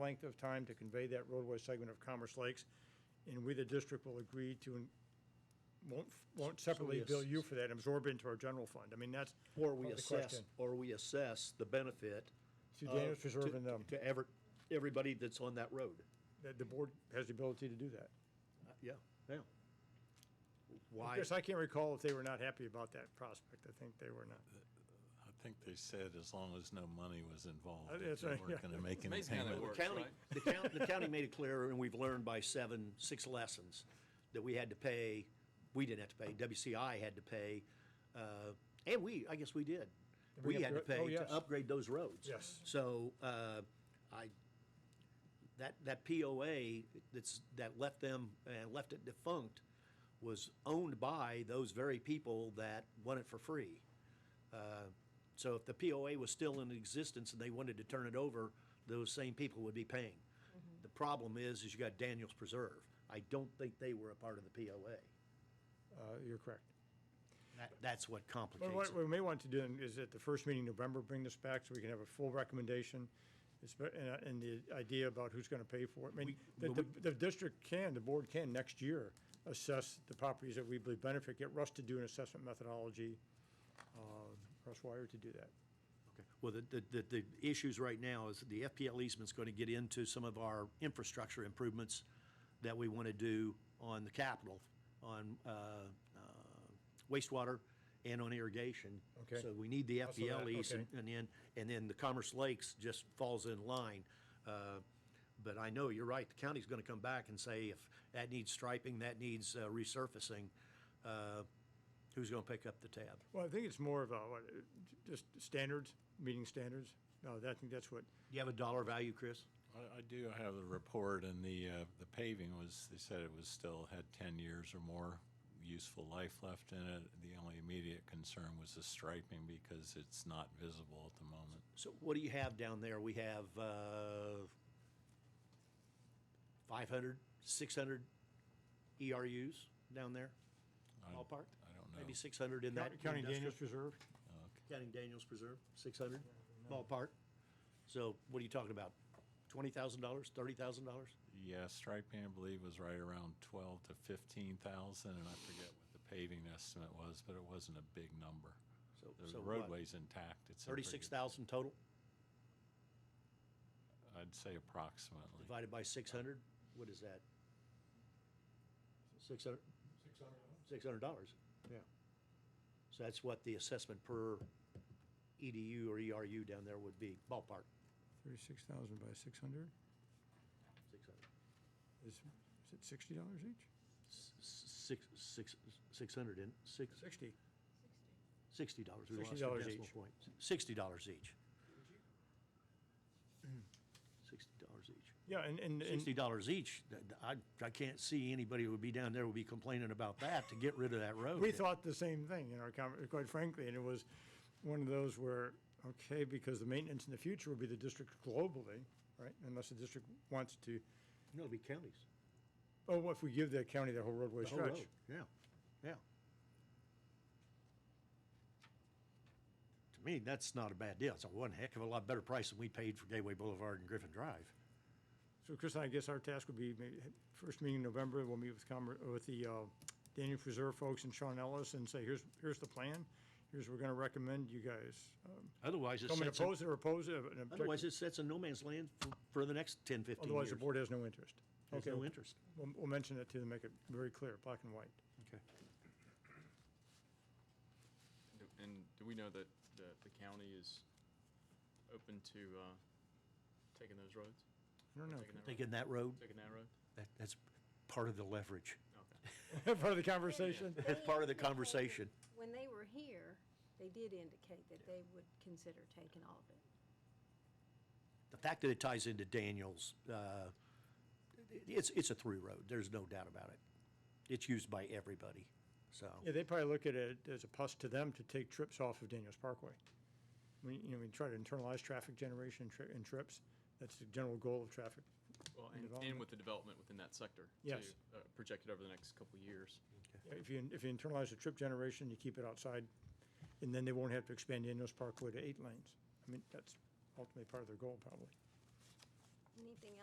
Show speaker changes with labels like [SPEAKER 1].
[SPEAKER 1] length of time to convey that roadway segment of Commerce Lakes, and we, the district, will agree to, won't, won't separately
[SPEAKER 2] ass-
[SPEAKER 1] bill you for that, absorb into our general fund. I mean, that's.
[SPEAKER 2] Or we
[SPEAKER 1] the
[SPEAKER 2] assess,
[SPEAKER 1] question.
[SPEAKER 2] or we assess the benefit.
[SPEAKER 1] To
[SPEAKER 2] of-
[SPEAKER 1] damage reserve
[SPEAKER 2] to-
[SPEAKER 1] and, um,
[SPEAKER 2] To ever, everybody that's on that road.
[SPEAKER 1] That the board has the ability to do that.
[SPEAKER 2] Uh, Yeah, yeah. Why,
[SPEAKER 1] Yes, I can't recall if they were not happy about that prospect. I think they were not.
[SPEAKER 3] I think they said as long as no money was
[SPEAKER 1] Uh,
[SPEAKER 3] involved,
[SPEAKER 1] that's
[SPEAKER 3] if they
[SPEAKER 1] right, yeah.
[SPEAKER 3] weren't going to make any
[SPEAKER 4] Amazing how that
[SPEAKER 3] payment.
[SPEAKER 4] works.
[SPEAKER 2] county,
[SPEAKER 4] right?
[SPEAKER 2] the county, the county made it clear, and we've learned by seven, six lessons, that we had to pay, we didn't have to pay, WCI had to pay, uh, and we, I guess we did.
[SPEAKER 1] We
[SPEAKER 2] We had to
[SPEAKER 1] upgra- oh,
[SPEAKER 2] pay
[SPEAKER 1] yes.
[SPEAKER 2] to upgrade those roads.
[SPEAKER 1] Yes.
[SPEAKER 2] So, uh, I, that, that POA that's, that left them, and left it defunct, was owned by those very people that won it for free. Uh, So if the POA was still in existence and they wanted to turn it over, those same people would be paying. The problem is, is you got Daniels Preserve. I don't think they were a part of the POA.
[SPEAKER 1] Uh, You're correct.
[SPEAKER 2] That, that's what
[SPEAKER 1] Well,
[SPEAKER 2] complicates
[SPEAKER 1] What we
[SPEAKER 2] it.
[SPEAKER 1] may want to do is at the first meeting in November, bring this back so we can have a full recommendation. It's be- And uh, and the idea about who's going to pay for it. I mean, the, the the district can, the board can next year assess the properties that we believe benefit. Get Russ to do an assessment methodology, uh, Russ Wire to do that.
[SPEAKER 2] Okay. Well, the, the, the- the issues right now is the FPL easement's going to get into some of our infrastructure improvements that we want to do on the capital, on uh, uh, wastewater and on irrigation.
[SPEAKER 1] Okay.
[SPEAKER 2] So we need the
[SPEAKER 1] Also that,
[SPEAKER 2] FPL lease, and
[SPEAKER 1] okay.
[SPEAKER 2] and then, and then the Commerce Lakes just falls in line. Uh, But I know, you're right, the county's gonna come back and say if that needs striping, that needs uh, resurfacing, uh, who's gonna pick up the tab?
[SPEAKER 1] Well, I think it's more of a, what, uh, j- just standards, meeting standards. No, that- I think that's what,
[SPEAKER 2] Do you have a dollar value, Chris?
[SPEAKER 3] I, I do have the report and the, uh, the paving was, they said it was still, had ten years or more useful life left in it. The only immediate concern was the striping because it's not visible at the moment.
[SPEAKER 2] So what do you have down there? We have uh, 500, 600 ERUs E down there,
[SPEAKER 3] I-
[SPEAKER 2] ballpark?
[SPEAKER 3] I don't
[SPEAKER 2] Maybe
[SPEAKER 3] know.
[SPEAKER 2] 600 in that.
[SPEAKER 1] County
[SPEAKER 2] industrial-
[SPEAKER 1] Daniels Reserve.
[SPEAKER 2] Counting Daniels Preserve, 600 ballpark. So what are you talking about? $20,000, $30,000?
[SPEAKER 3] Yeah, striping, I believe, was right around twelve to fifteen thousand, and I forget what the paving estimate was, but it wasn't a big number.
[SPEAKER 2] So- so
[SPEAKER 3] The
[SPEAKER 2] what?
[SPEAKER 3] roadway's intact. It's in pretty-
[SPEAKER 2] 36,000 total
[SPEAKER 3] I'd say approximately.
[SPEAKER 2] divided by 600? What is that? 600? $600.
[SPEAKER 1] Yeah.
[SPEAKER 2] So that's what the assessment per EDU or ERU down there would be, ballpark,
[SPEAKER 1] 36,000 by 600,
[SPEAKER 2] 600.
[SPEAKER 1] is, is it $60 each?
[SPEAKER 2] six, six, six hundred and, six,
[SPEAKER 1] 60.
[SPEAKER 2] sixty dollars. We lost
[SPEAKER 1] $60
[SPEAKER 2] the decimal
[SPEAKER 1] each.
[SPEAKER 2] point. Sixty dollars each. Sixty dollars each.
[SPEAKER 1] Yeah, and, and. and-
[SPEAKER 2] Sixty dollars each. Th- th- I, I can't see anybody who would be down there would be complaining about that to get rid of that road.
[SPEAKER 1] We thought the same thing in our conver, quite frankly, and it was one of those where, okay, because the maintenance in the future will be the district globally, right? Unless the district wants to,
[SPEAKER 2] No, it'd be counties.
[SPEAKER 1] oh, well, if we give the county the whole roadway
[SPEAKER 2] The whole road.
[SPEAKER 1] stretch.
[SPEAKER 2] Yeah, yeah. To me, that's not a bad deal. It's a one heck of a lot better price than we paid for Gateway Boulevard and Griffin Drive.
[SPEAKER 1] So Chris, I guess our task would be, may- first meeting in November, we'll meet with Commer, with the uh, Daniel Preserve folks and Sean Ellis and say, here's, here's the plan, here's what we're gonna recommend you guys. um,
[SPEAKER 2] Otherwise, it
[SPEAKER 1] Come and
[SPEAKER 2] sets a-
[SPEAKER 1] oppose it or oppose it, an
[SPEAKER 2] Otherwise,
[SPEAKER 1] objection,
[SPEAKER 2] it sets a no man's land for, for the next 10, 15 years.
[SPEAKER 1] otherwise the board has no interest.
[SPEAKER 2] There's
[SPEAKER 1] Okay,
[SPEAKER 2] no interest.
[SPEAKER 1] We'll, we'll mention it to them, make it very clear, black and white.
[SPEAKER 2] Okay.
[SPEAKER 4] And do we know that the, the county is open to, uh, taking those roads?
[SPEAKER 1] I don't know.
[SPEAKER 4] Taking that road?
[SPEAKER 2] Taking that road,
[SPEAKER 4] Taking that road?
[SPEAKER 2] that, that's part of the leverage.
[SPEAKER 4] Okay.
[SPEAKER 1] part of the conversation.
[SPEAKER 2] That's
[SPEAKER 5] They
[SPEAKER 2] part of the
[SPEAKER 5] indicated-
[SPEAKER 2] conversation.
[SPEAKER 5] When they were here, they did indicate that they would consider taking all of it.
[SPEAKER 2] The fact that it ties into Daniels, uh, it- it's, it's a through road. There's no doubt about it. It's used by everybody, so.
[SPEAKER 1] Yeah, they probably look at it as a plus to them to take trips off of Daniels Parkway. We, you know, we try to internalize traffic generation tri- and trips. That's the general goal of traffic.
[SPEAKER 4] Well, and, and
[SPEAKER 1] Development.
[SPEAKER 4] with the development within that sector.
[SPEAKER 1] Yes.
[SPEAKER 4] too, uh, Projected over the next couple of years.
[SPEAKER 1] If you, if you internalize the trip generation, you keep it outside, and then they won't have to expand Daniels Parkway to eight lanes. I mean, that's ultimately part of their goal, probably.
[SPEAKER 5] Anything else